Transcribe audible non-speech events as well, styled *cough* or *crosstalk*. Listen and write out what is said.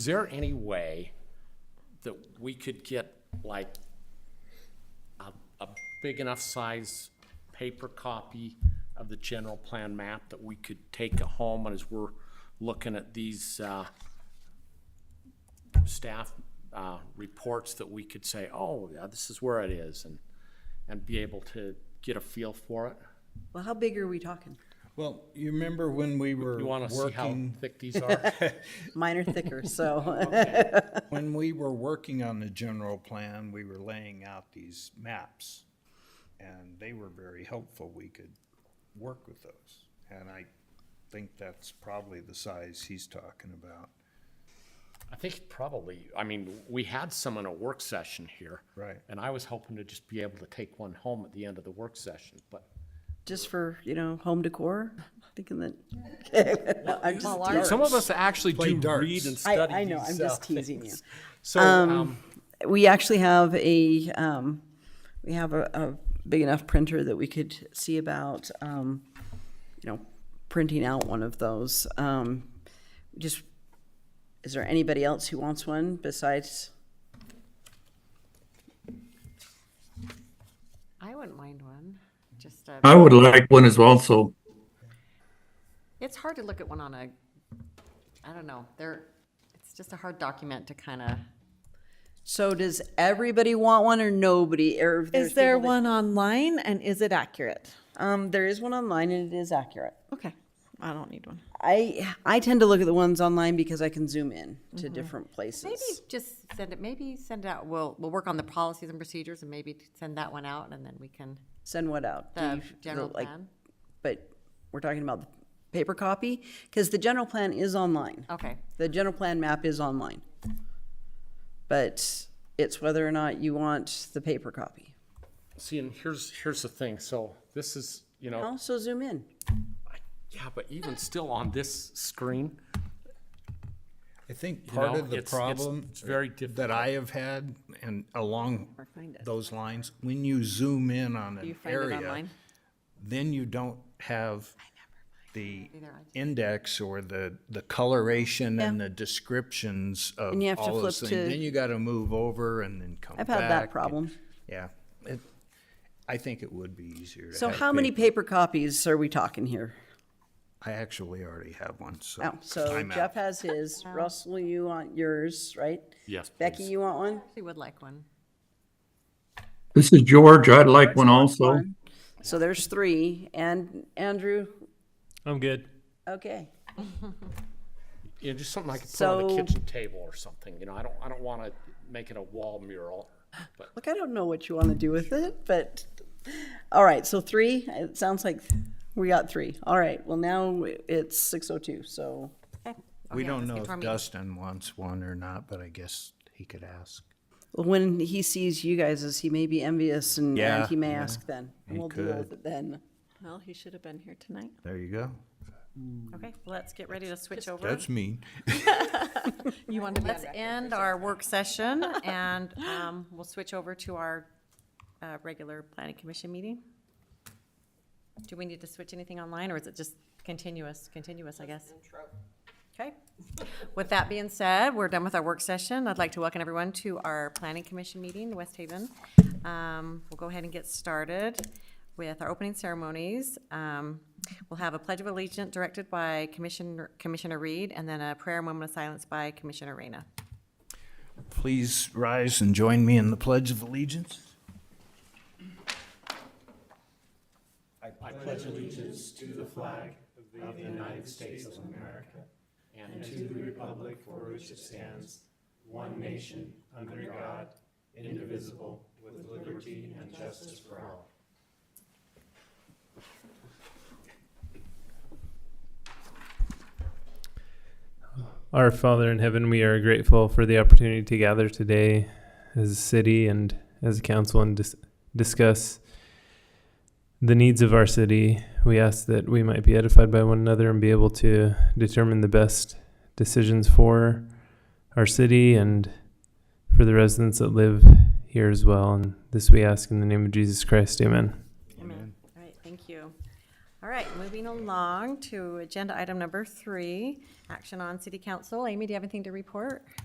Is there any way that we could get like a, a big enough size paper copy of the general plan map that we could take it home and as we're looking at these, uh, staff, uh, reports that we could say, oh, yeah, this is where it is and, and be able to get a feel for it? Well, how big are we talking? Well, you remember when we were You wanna see how working, thick these are? Mine are thicker, so, when we were working on the general plan, we were laying out these maps. And they were very helpful. We could work with those. And I think that's probably the size he's talking about. I think probably, I mean, we had some in a work session here. Right. And I was hoping to just be able to take one home at the end of the work session, but just for, you know, home decor, thinking that, okay, *laughs* no, I'm just teasing. some of us actually do darts. read and I, study I know, I'm these, just uh, teasing *laughs* you. So, um, We actually have a, um, we have a, a big enough printer that we could see about, um, you know, printing out one of those. Um, just, is there anybody else who wants one besides, I wouldn't mind one. Just a, I would like one as well, so it's hard to look at one on a. I don't know. They're. It's just a hard document to kind of. so does everybody want one or nobody? Or there's Is there people that- one online and is it accurate? Um, there is one online and it is accurate. Okay. I don't need one. I I tend to look at the ones online because I can zoom in to different places. Mm-hmm. Maybe just send it. Maybe send it out. We'll we'll work on the policies and procedures and maybe send that one out and then we can Send what out? Do the you- general the, like- plan. But we're talking about the paper copy because the general plan is online. Okay. The general plan map is online. But it's whether or not you want the paper copy. see, and here's, here's the thing, so this is, you know, Also zoom in. yeah, but even still on this screen, I think You part know, of the it's- it's- problem it's very that difficult. I have had and along those lines, when you zoom in on an area, then you don't have the index or the, the coloration and the descriptions of And you have to all those flip things. to- Then you gotta move over and then come I've back. had that and- problem. Yeah. It- I think it would be easier to So have how many paper copies are we talking here? I actually already have one, so. Oh, so I'm Jeff out. has *laughs* his. Russell, you want yours, right? Yes, Becky, please. you want one? She would like one. this is George. I'd like one also. So there's three, and Andrew, I'm good. okay. you know, just something I could put on the So- kitchen table or something, you know, I don't, I don't wanna make it a wall mural, but Look, I don't know what you want to do with it, but, all right, so three, it sounds like we got three. All right, well, now it's six oh two, so, We don't know get from if you. Dustin wants one or not, but I guess he could ask. when he sees you guys, is he may be envious and, and Yeah, he may yeah, ask then. and he We'll deal with could. it then. Well, he should have been here tonight. There you go. Okay. Let's get ready to switch over. That's mean. You want to be Let's end our work *laughs* session and um, we'll switch over to our uh, regular planning commission meeting. Do we need to switch anything online or is it just continuous, continuous, I guess? Okay. With that being said, we're done with our work session. I'd like to welcome everyone to our planning commission meeting, in West Haven. Um, We'll go ahead and get started with our opening ceremonies. Um, We'll have a pledge of allegiance directed by Commissioner, Commissioner Reed, and then a prayer and moment of silence by Commissioner Reyna. Please rise and join me in the Pledge of Allegiance. Our Father in heaven, we are grateful for the opportunity to gather today as a city and as a council and dis- discuss the needs of our city. We ask that we might be edified by one another and be able to determine the best decisions for our city and for the residents that live here as well. And this we ask in the name of Jesus Christ. Amen. Amen. All right, thank you. All right, moving along to agenda item number three, action on city council. Amy, do you have anything to report?